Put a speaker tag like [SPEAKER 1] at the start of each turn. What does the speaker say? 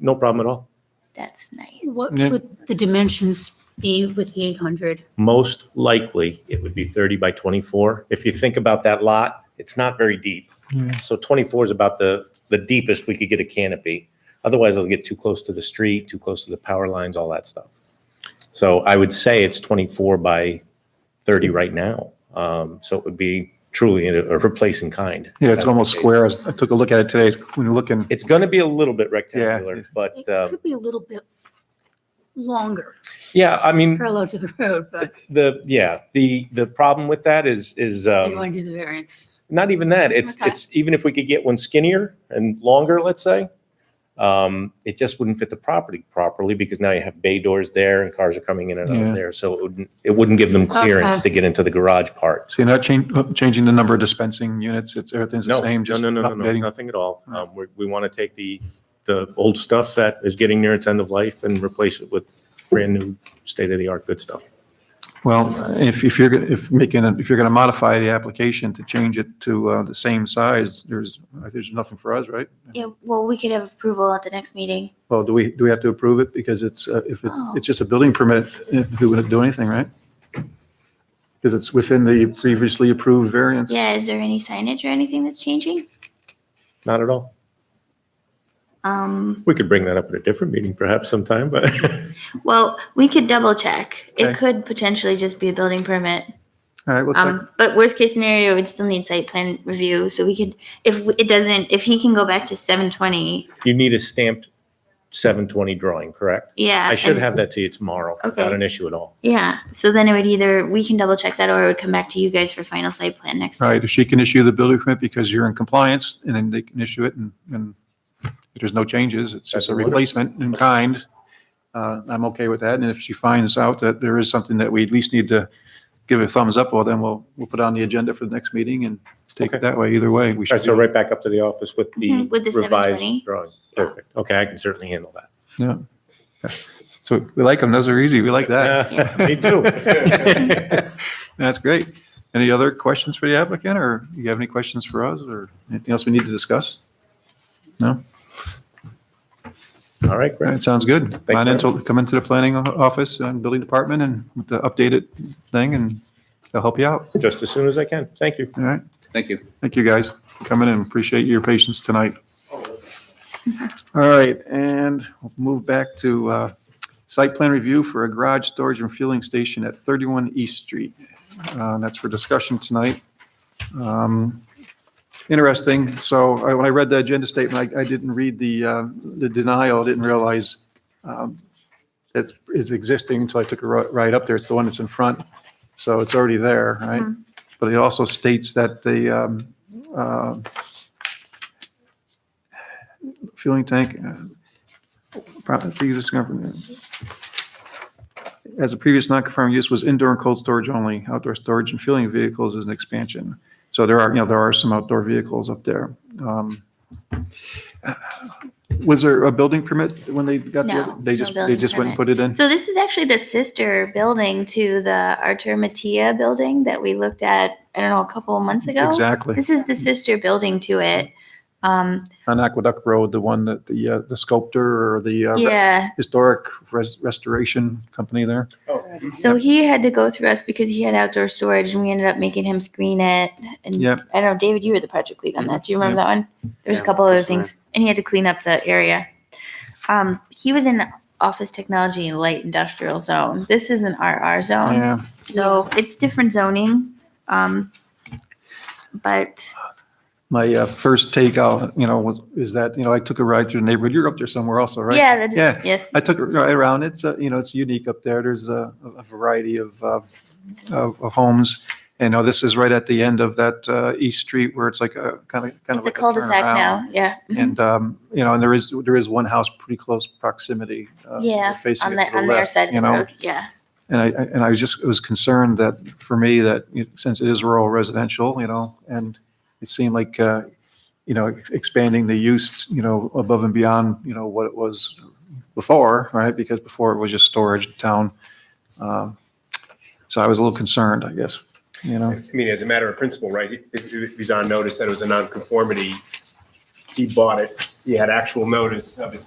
[SPEAKER 1] No problem at all.
[SPEAKER 2] That's nice.
[SPEAKER 3] What
[SPEAKER 4] Yeah.
[SPEAKER 3] would the dimensions be with the 800?
[SPEAKER 1] Most likely, it would be 30 by 24. If you think about that lot, it's not very deep.
[SPEAKER 4] Yeah.
[SPEAKER 1] So 24 is about the, the deepest we could get a canopy. Otherwise, it'll get too close to the street, too close to the power lines, all that stuff. So I would say it's 24 by 30 right now. Um, So it would be truly a a replacing kind.
[SPEAKER 4] Yeah,
[SPEAKER 1] That's
[SPEAKER 4] it's
[SPEAKER 1] the
[SPEAKER 4] almost
[SPEAKER 1] case.
[SPEAKER 4] square. I was- I took a look at it today. It's- When you're looking,
[SPEAKER 1] It's going to be a little bit rectangular, but
[SPEAKER 3] It
[SPEAKER 1] um,
[SPEAKER 3] could be a little bit longer,
[SPEAKER 1] yeah, I mean,
[SPEAKER 3] parallel to the road, but
[SPEAKER 1] the, yeah, the, the problem with that is, is.
[SPEAKER 3] they
[SPEAKER 1] um,
[SPEAKER 3] want to do the variance.
[SPEAKER 1] not even that. It's
[SPEAKER 3] Okay.
[SPEAKER 1] it's even if we could get one skinnier and longer, let's say, um, it just wouldn't fit the property properly because now you have bay doors there and cars are coming in and out
[SPEAKER 4] Yeah.
[SPEAKER 1] of there. So it wouldn't it wouldn't give them clearance
[SPEAKER 3] Okay.
[SPEAKER 1] to get into the garage part.
[SPEAKER 4] so you're not changing, changing the number of dispensing units. It's, everything's the
[SPEAKER 1] No,
[SPEAKER 4] same,
[SPEAKER 1] no,
[SPEAKER 4] just
[SPEAKER 1] no, no, no, no,
[SPEAKER 4] updating.
[SPEAKER 1] nothing at all.
[SPEAKER 4] Right.
[SPEAKER 1] Um, we we want to take the the old stuff that is getting near its end of life and replace it with brand new state of the art good stuff.
[SPEAKER 4] Well, if, if you're, gonna- if making, a- if you're going to modify the application to change it to uh, the same size, there's, there's nothing for us, right?
[SPEAKER 2] Yeah, well, we could have approval at the next meeting.
[SPEAKER 4] Well, do we, do we have to approve it? Because it's, uh, if it-
[SPEAKER 2] Oh.
[SPEAKER 4] it's just a building permit, eh, we wouldn't do anything, right? Because it's within the previously approved variance.
[SPEAKER 2] Yeah, is there any signage or anything that's changing?
[SPEAKER 1] Not at all.
[SPEAKER 2] Um,
[SPEAKER 1] We could bring that up at a different meeting perhaps sometime, but
[SPEAKER 2] well, we could double check. It
[SPEAKER 4] Okay.
[SPEAKER 2] could potentially just be a building permit.
[SPEAKER 4] All right, we'll check.
[SPEAKER 2] Um, but worst case scenario, we'd still need site plan review, so we could, if w- it doesn't, if he can go back to seven twenty,
[SPEAKER 1] you need a stamped 720 drawing, correct?
[SPEAKER 2] yeah.
[SPEAKER 1] I should
[SPEAKER 2] Uh, and-
[SPEAKER 1] have that to you tomorrow, without
[SPEAKER 2] Okay.
[SPEAKER 1] an issue at all.
[SPEAKER 2] Yeah, so then it would either, we can double check that or it would come back to you guys for final site plan next.
[SPEAKER 4] Right, if she can issue the building permit because you're in compliance, and then they can issue it, and, and if there's no changes, it's just a replacement in kind, uh, I'm okay with that, and if she finds out that there is something that we at least need to give a thumbs up, well, then we'll, we'll put it on the agenda for the next meeting and take
[SPEAKER 1] Okay.
[SPEAKER 4] it that way, either way, we
[SPEAKER 1] All
[SPEAKER 4] should.
[SPEAKER 1] right, so right back up to the office with the
[SPEAKER 2] Mhm, with the
[SPEAKER 1] revised
[SPEAKER 2] 720.
[SPEAKER 1] drawing. Perfect. Okay, I can certainly handle that.
[SPEAKER 4] Yeah. So we like them, those are easy, we like that,
[SPEAKER 1] Yeah, Me too.
[SPEAKER 4] that's great. Any other questions for the applicant, or you have any questions for us, or anything else we need to discuss? No?
[SPEAKER 1] All right,
[SPEAKER 4] All
[SPEAKER 1] great.
[SPEAKER 4] right, sounds good.
[SPEAKER 1] you,
[SPEAKER 4] Come
[SPEAKER 1] Matt.
[SPEAKER 4] into, come into the planning o- office and building department and with the updated thing and they'll help you out.
[SPEAKER 1] Just as soon as I can. Thank you.
[SPEAKER 4] All right.
[SPEAKER 5] Thank you.
[SPEAKER 4] Thank you guys for coming in. Appreciate your patience tonight. All right, and we'll move back to uh, site plan review for a garage storage and fueling station at 31 East Street. Uh, That's for discussion tonight. Um, Interesting. So I- when I read the agenda statement, I I didn't read the uh, the denial. I didn't realize um, it is existing until I took a ri- ride up there. It's the one that's in front. So it's already there, right?
[SPEAKER 2] Mm-hmm.
[SPEAKER 4] But it also states that the um, uh, fueling tank, uh, pro- previous government- as a previous non-conforming use was indoor and cold storage only, outdoor storage and fueling vehicles is an expansion. So there are, you know, there are some outdoor vehicles up there. Um, Was there a building permit when they got there?
[SPEAKER 2] No,
[SPEAKER 4] They
[SPEAKER 2] no
[SPEAKER 4] just, they
[SPEAKER 2] building
[SPEAKER 4] just went and put it in?
[SPEAKER 2] So this is actually the sister building to the Artur Mattia building that we looked at, I don't know, a couple of months ago.
[SPEAKER 4] Exactly.
[SPEAKER 2] This is the sister building to it. Um,
[SPEAKER 4] on Aqueduct Road, the one that the, uh, the sculptor or the uh, re-
[SPEAKER 2] yeah,
[SPEAKER 4] historic res- restoration company there.
[SPEAKER 2] so he had to go through us because he had outdoor storage and we ended up making him screen it. And
[SPEAKER 4] Yep.
[SPEAKER 2] I don't know, David, you were the project lead on that. Do you remember that one? There's a
[SPEAKER 5] Yeah,
[SPEAKER 2] couple other
[SPEAKER 5] that's
[SPEAKER 2] things and he had to clean up the area. Um, he was in office technology and light industrial zone. This is an RR zone.
[SPEAKER 4] Yeah,
[SPEAKER 2] So it's different zoning. Um, but
[SPEAKER 4] my uh, first take out, you know, was, is that, you know, I took a ride through the neighborhood. You're up there somewhere also, right?
[SPEAKER 2] yeah, that is,
[SPEAKER 4] Yeah.
[SPEAKER 2] yes.
[SPEAKER 4] I took a ride around. It's, uh, you know, it's unique up there. There's a, a variety of, uh, of of homes. And now this is right at the end of that uh, East Street where it's like a kind of, kind
[SPEAKER 2] It's
[SPEAKER 4] of
[SPEAKER 2] a
[SPEAKER 4] like a
[SPEAKER 2] cul-de-sac
[SPEAKER 4] turnaround.
[SPEAKER 2] now. Yeah. mhm.
[SPEAKER 4] And, um, you know, and there is, there is one house pretty close proximity. uh,
[SPEAKER 2] Yeah, on
[SPEAKER 4] facing it
[SPEAKER 2] the,
[SPEAKER 4] to the
[SPEAKER 2] on their
[SPEAKER 4] left,
[SPEAKER 2] side of
[SPEAKER 4] you
[SPEAKER 2] the
[SPEAKER 4] know?
[SPEAKER 2] road. Yeah.
[SPEAKER 4] And I, I- and I was just, was concerned that, for me, that you know, since it is rural residential, you know, and it seemed like, uh, you know, ex- expanding the use, you know, above and beyond, you know, what it was before, right? Because before it was just storage in town. Um, So I was a little concerned, I guess, you know?
[SPEAKER 6] I mean, as a matter of principle, right, if- if he's on notice that it was a nonconformity, he bought it, he had actual notice of his